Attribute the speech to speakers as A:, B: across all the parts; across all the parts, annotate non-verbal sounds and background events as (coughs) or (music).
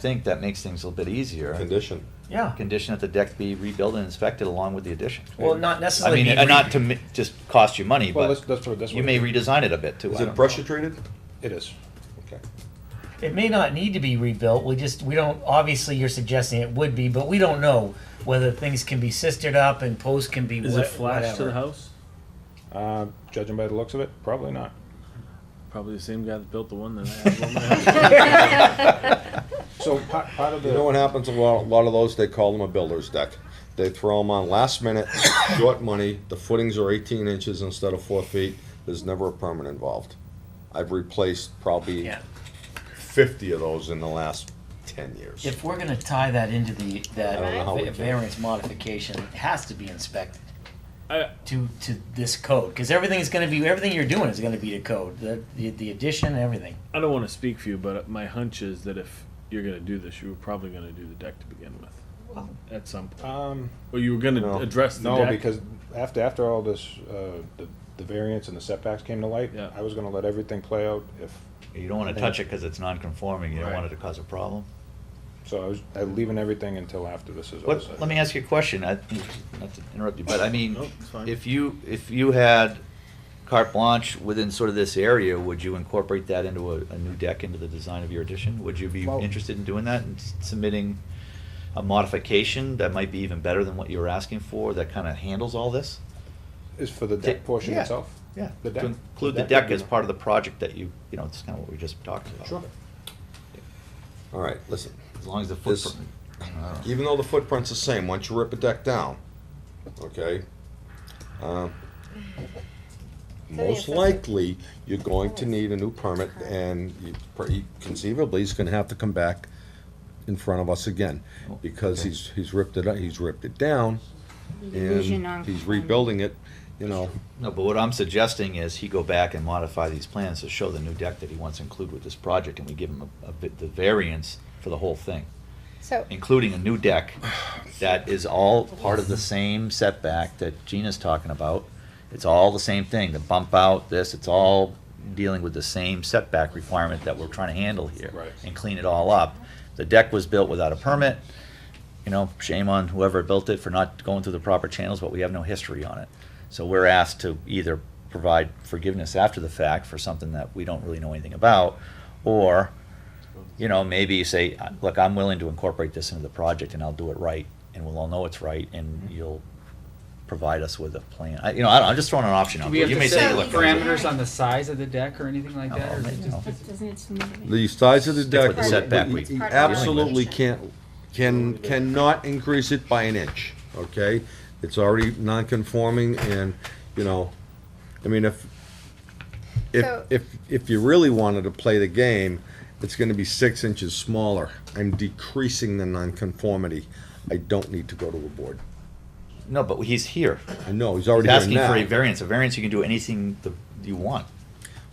A: think that makes things a little bit easier.
B: Condition.
C: Yeah.
A: Condition that the deck be rebuilt and inspected along with the addition.
C: Well, not
A: I
C: necessarily.
A: mean,
C: be
A: uh, not
C: re-
A: to mi- just cost you money,
D: Well, that's,
A: but
D: that's what, that's what.
A: you may redesign it a bit too.
B: Is
A: I don't
B: it
A: know.
B: pressure treated?
D: It is.
B: Okay.
C: It may not need to be rebuilt. We just we don't. Obviously, you're suggesting it would be, but we don't know whether things can be sistered up and posts can be.
E: Is
C: wha-
E: it flash
C: whatever.
E: to the house?
D: Uh, judging by the looks of it, probably not.
E: Probably the same guy that built the one that I have on my house.
D: (laughs)
F: (laughs)
D: So part, part of the.
B: You know what happens a lot, a lot of those, they call them a builder's deck. They throw them on last minute, (coughs) short money, the footings are eighteen inches instead of four feet, there's never a permit involved. I've replaced probably
C: Yeah.
B: fifty of those in the last ten years.
G: If we're gonna tie that into the,
B: I don't know how we
G: that
B: can.
G: variance modification, it has to be inspected
E: I-
G: to, to this code, cause everything's gonna be, everything you're doing is gonna be to code, the, the- the addition, everything.
E: I don't want to speak for you, but my hunch is that if you're going to do this, you were probably going to do the deck to begin with. at some point.
D: Um,
E: Or you were going to
B: No.
E: address the
D: no,
E: deck.
D: because after, after all this, uh, the, the variance and the setbacks came to light,
E: Yeah.
D: I was gonna let everything play out if,
A: You don't want to touch it because it's non-conforming. You don't want it to cause a problem.
D: so I was, I'm leaving everything until after this is. all
A: What,
D: said.
A: let me ask you a question. I, not to interrupt you, but I mean,
E: Nope, it's fine.
A: if you if you had carte blanche within sort of this area, would you incorporate that into a, a new deck into the design of your addition? Would you be
D: Well-
A: interested in doing that and s- submitting a modification that might be even better than what you were asking for? That kind of handles all this.
D: Is for the deck
A: Ta-
D: portion
A: yeah,
D: itself?
A: Yeah,
D: The deck.
A: to include the
D: would
A: deck
D: be
A: as
D: nice.
A: part of the project that you you know it's kind of what we just talked about.
D: Sure.
B: All right, listen,
A: As long as the
B: This-
A: footprint. I don't know.
B: even though the footprint's the same, once you rip a deck down, okay?
H: (sighs)
B: uh,
H: the
B: Most
H: assessment.
B: likely, you're going to need a new permit, and you pr- conceivably, he's gonna have to come back in front of us again, because he's, he's ripped it, up- he's ripped it down, and
H: Revision on-
B: he's rebuilding it, you know,
A: No, but what I'm suggesting is he go back and modify these plans to show the new deck that he wants to include with this project, and we give him a, a bit, the variance for the whole thing,
H: So,
A: including a new deck that is all part of the same setback that Gina's talking about. It's all the same thing, the bump out, this, it's all dealing with the same setback requirement that we're trying to handle here.
D: Right.
A: And clean it all up. The deck was built without a permit, you know, shame on whoever built it for not going through the proper channels, but we have no history on it. So we're asked to either provide forgiveness after the fact for something that we don't really know anything about, or, you know, maybe you say, look, I'm willing to incorporate this into the project and I'll do it right, and we'll all know it's right, and
I: Mm-hmm.
A: you'll provide us with a plan. I, you know, I don't, I'm just throwing an option out
I: Do we
A: there.
I: have
A: You
I: to
A: may say,
I: set
A: look.
I: parameters on the size of the deck or anything like that?
A: Oh,
I: or is it
A: maybe
I: just-
A: not.
H: doesn't it seem to be-
B: the size of the
A: Stick
B: deck.
A: with the setback
B: we-
A: we-
B: we
H: Part of the
B: Absolutely
H: regulation.
B: can't, can, cannot increase it by an inch, okay? It's already non-conforming and, you know, I mean, if, if,
H: So-
B: if, if you really wanted to play the game, it's gonna be six inches smaller. I'm decreasing the nonconformity. I don't need to go to a board.
A: No, but he's here.
B: I know, he's
A: He's
B: already
A: asking
B: here
A: for a
B: now.
A: variance. A variance, you can do anything the, you want.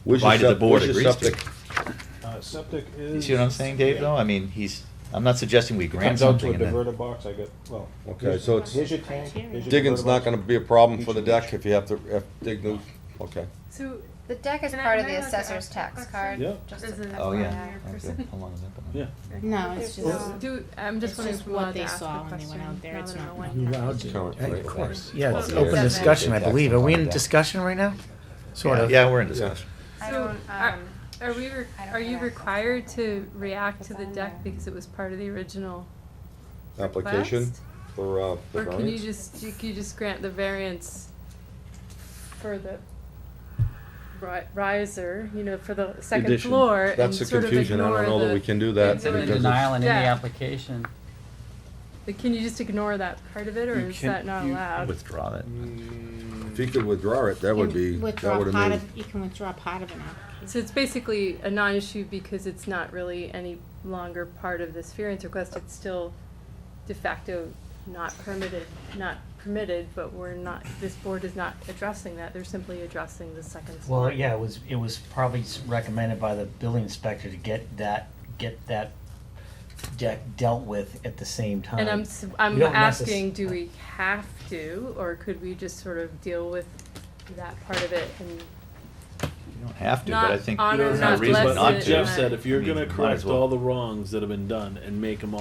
B: Where's your
A: provided the
B: sep-
A: board
B: where's your
A: agrees to it.
B: septic?
D: Uh, septic
A: You
D: is.
A: see what I'm saying, Dave, though? I mean, he's, I'm not suggesting we grant
D: Comes out to
A: something
D: a
A: and then.
D: diverter box, I get, well.
B: Okay,
D: here's-
B: so it's-
D: Here's your tank. here's your
B: Digging's
D: diverter
B: not
D: box.
B: gonna be a problem for the deck if you have to, if, dig new, okay.
F: So
H: The deck is
F: Can I-
H: part of
F: can I
H: the
F: look at
H: assessor's
F: our
H: tax
F: question?
H: card.
D: Yeah.
H: just
F: Is
H: as
F: it-
A: Oh, yeah.
H: FYI.
F: That's
A: Okay.
F: why-
A: How long has that been? on?
E: yeah.
F: no,
H: No, it's just,
F: do I'm just
G: It's just
F: wondering if we
G: what
F: allowed to
G: they
F: ask
G: saw
F: a
G: when they went
F: question.
G: out there.
F: now
G: It's
F: that I
G: not
F: know
G: what
F: when
C: You
F: that-
C: allowed to-
B: Current
C: Hey,
B: rate.
C: Of course, yeah, it's
B: Yeah.
C: open
B: Yeah.
C: discussion, I
A: Yeah.
C: believe. Are we in discussion right now? Sort of.
A: Yeah, we're in discussion.
H: I
F: So,
H: don't,
F: are-
H: um,
F: Are we, re-
H: I don't
F: are you
H: think I-
F: required to react to the
H: It's on
F: deck
H: there.
F: because it was part of the original
B: Application
F: request?
B: for, uh, the
F: Or can you
B: variance?
F: just, you can just grant the variance for the ri- riser, you know, for the second
E: Addition.
F: floor and
B: That's the
F: sort of
B: confusion, I
F: ignore
B: don't know that we can do that.
I: It's in the
B: because
I: denial
B: it's-
I: and in the
F: Yeah.
I: application.
F: But can you just ignore that part of it, or
E: You
F: is
E: can-
F: that not
E: you-
F: allowed?
A: Withdraw it.
D: Mm,
B: If he could withdraw it, that would be,
G: You
B: that
G: withdraw
B: would have
G: part
B: made,
G: of- You can withdraw part of an application.
F: So it's basically a non-issue because it's not really any longer part of this variance request, it's still de facto not permitted, not permitted, but we're not, this board is not addressing that, they're simply addressing the second floor.
G: Well, yeah, it was, it was probably s- recommended by the building inspector to get that, get that deck dealt with at the same time.
F: And I'm, s-
G: We
F: I'm
G: uh, don't necess-
F: asking, do we have to, or could we just sort of deal with that part of it and
A: You don't have to,
F: Not
A: but I think
F: honor,
A: there's no
F: not
A: reason
F: bless
A: not
F: it,
A: to.
F: and
E: Jeff said, if
A: I
E: you're
A: mean,
E: gonna
A: might as
E: correct
A: well.
E: all the wrongs that have been done and make them